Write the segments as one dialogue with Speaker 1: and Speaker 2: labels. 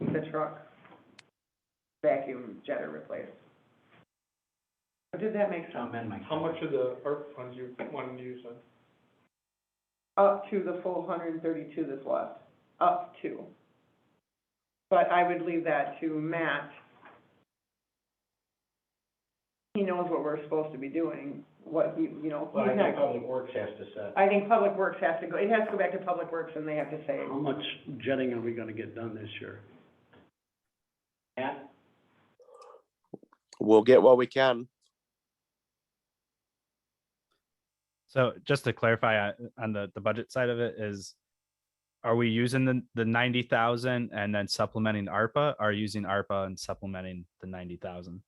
Speaker 1: the truck vacuum jetter replaced. Did that make sense?
Speaker 2: I'll amend my.
Speaker 3: How much of the ARP funds you want to use then?
Speaker 1: Up to the full hundred and thirty-two that's left, up to. But I would leave that to Matt. He knows what we're supposed to be doing, what he, you know,
Speaker 2: Well, I
Speaker 1: he's not-
Speaker 2: think Public Works has to set.
Speaker 1: I think Public Works has to go, it has to go back to Public Works and they have to say,
Speaker 4: How much jetting are we gonna get done this year?
Speaker 2: Matt,
Speaker 5: We'll get what we can.
Speaker 6: So just to clarify uh, on the, the budget side of it is, are we using the, the ninety thousand and then supplementing ARPA? Are using ARPA and supplementing the ninety thousand?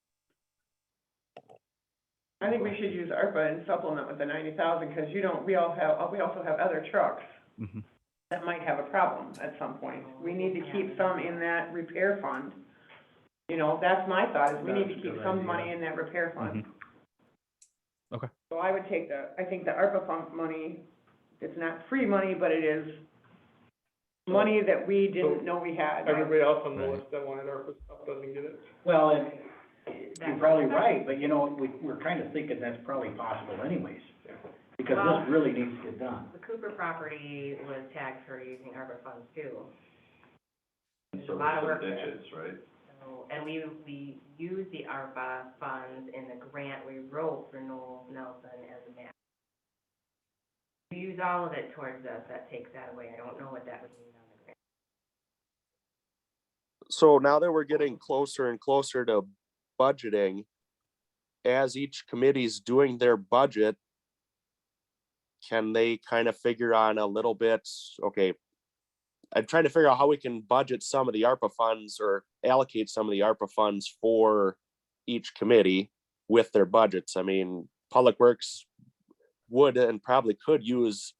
Speaker 1: I think we should use ARPA and supplement with the ninety thousand, because you don't, we all have, we also have other trucks
Speaker 6: Mhm.
Speaker 1: that might have a problem at some point. We need to keep some in that repair fund. You know, that's my thought, is we need to
Speaker 4: That's a
Speaker 1: keep
Speaker 4: good
Speaker 1: some
Speaker 4: idea. Mm-hmm.
Speaker 1: money in that repair fund.
Speaker 6: Okay.
Speaker 1: So I would take the, I think the ARPA fund money, it's not free money, but it is money that we didn't know we had.
Speaker 3: Everybody else on the
Speaker 6: Right.
Speaker 3: list that wanted ARP stuff doesn't get it.
Speaker 2: well, and you're probably right, but you know, we, we're kind of thinking that's probably possible anyways. Because
Speaker 7: Well-
Speaker 2: this really needs to get done.
Speaker 7: The Cooper property was tagged for using ARPA funds too.
Speaker 8: And
Speaker 7: There's a
Speaker 8: so
Speaker 7: lot of
Speaker 8: some
Speaker 7: work there.
Speaker 8: ditches, right?
Speaker 7: So, and we, we used the ARPA funds in the grant we wrote for Noel Nelson as a match. We use all of it towards us, that takes that away, I don't know what that would mean on the grant.
Speaker 5: So now that we're getting closer and closer to budgeting, as each committee's doing their budget, can they kind of figure on a little bit, okay, I'm trying to figure out how we can budget some of the ARPA funds or allocate some of the ARPA funds for each committee with their budgets. I mean, Public Works would and probably could use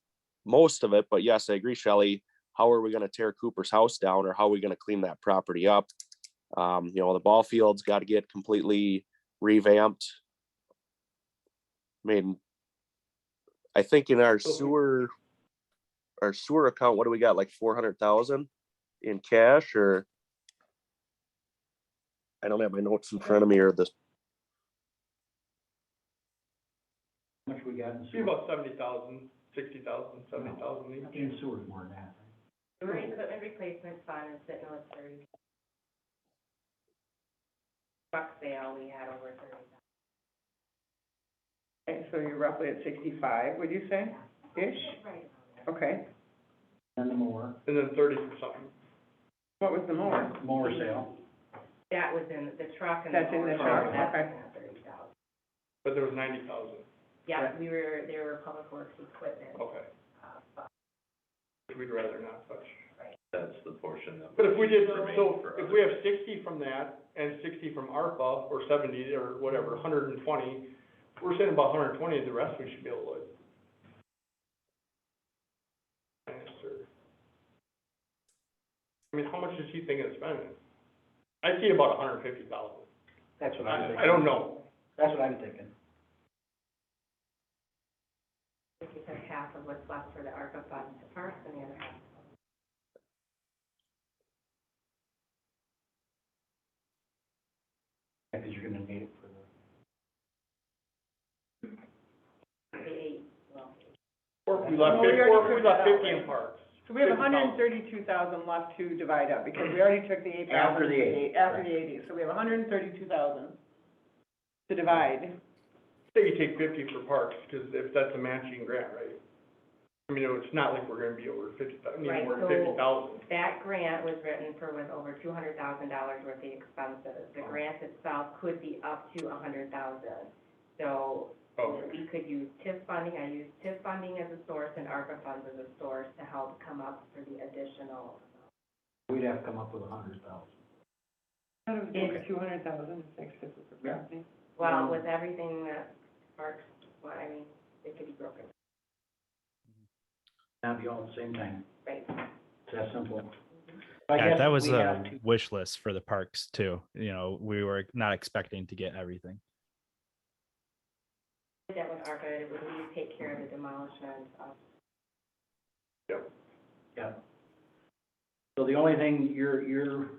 Speaker 5: most of it, but yes, I agree, Shelley. How are we gonna tear Cooper's house down or how are we gonna clean that property up? Um, you know, the ball field's gotta get completely revamped. I mean, I think in our
Speaker 3: So-
Speaker 5: sewer, our sewer account, what do we got, like four hundred thousand in cash or? I don't have my notes in front of me or the
Speaker 2: How much we got in
Speaker 3: Be
Speaker 2: sewer?
Speaker 3: about seventy thousand, sixty thousand, seventy thousand each.
Speaker 2: In sewer is more than that.
Speaker 7: Sewer equipment replacement fund is sitting on thirty. Truck sale, we had over thirty thousand.
Speaker 1: Okay, so you're roughly at sixty-five, would you say, ish?
Speaker 7: Right.
Speaker 1: Okay,
Speaker 2: And the more,
Speaker 3: And then thirty for something.
Speaker 1: what was the more?
Speaker 2: more sale.
Speaker 7: That was in the truck and the.
Speaker 1: That's in the
Speaker 7: mower
Speaker 2: truck,
Speaker 7: fund, that's
Speaker 1: okay.
Speaker 7: in that thirty thousand.
Speaker 3: But there was ninety thousand,
Speaker 7: Yeah, we were, there were public works equipment,
Speaker 3: okay.
Speaker 7: uh, funds.
Speaker 3: Which We'd rather not touch.
Speaker 8: That's the portion that.
Speaker 3: But if we did,
Speaker 8: remained
Speaker 3: so
Speaker 8: for
Speaker 3: if
Speaker 8: other-
Speaker 3: we have sixty from that and sixty from ARPA or seventy or whatever, hundred and twenty, we're saying about hundred and twenty, the rest we should be able to. Answer. I mean, how much is he thinking of spending? I see about hundred and fifty thousand.
Speaker 2: That's what I'm thinking.
Speaker 3: I, I don't know.
Speaker 2: That's what I'm thinking.
Speaker 7: if you took half of what's left for the ARPA funds to parks and the other half.
Speaker 2: Because you're gonna need it for the.
Speaker 7: The eight, well,
Speaker 3: Or if we left,
Speaker 1: Well, we
Speaker 3: fif-
Speaker 1: already
Speaker 3: or if we
Speaker 1: figured
Speaker 3: left
Speaker 1: that out,
Speaker 3: fifty in
Speaker 1: right?
Speaker 3: parks.
Speaker 1: So we have
Speaker 3: 50,000.
Speaker 1: hundred and thirty-two thousand left to divide up, because we already took the eight thousand.
Speaker 2: After the eight,
Speaker 1: After
Speaker 2: right.
Speaker 1: the eighty, so we have hundred and thirty-two thousand to divide.
Speaker 3: Say you take fifty for parks, because if that's a matching grant, right? I mean, it's not like we're gonna be over fifty, I mean,
Speaker 7: Right,
Speaker 3: over
Speaker 7: so-
Speaker 3: fifty thousand.
Speaker 7: that grant was written for with over two hundred thousand dollars worth of expenses. The grant itself could be up to a hundred thousand. So
Speaker 3: Oh, Okay,
Speaker 7: we could use TIF funding, I use TIF funding as a source and ARPA funds as a source to help come up for the additional.
Speaker 2: We'd have to come up with a hundred thousand.
Speaker 7: Okay.
Speaker 1: two hundred thousand, six fifty for
Speaker 2: Yeah.
Speaker 1: property.
Speaker 7: Well, with everything that parks, well, I mean, it could be broken,
Speaker 2: Not be all at the same time.
Speaker 7: right?
Speaker 2: It's that simple.
Speaker 6: Yeah, that was uh, a wish list for the parks too. You know, we were not expecting to get everything.
Speaker 7: That would ARPA, it would we take care of the demolition of
Speaker 2: So the only thing you're, you're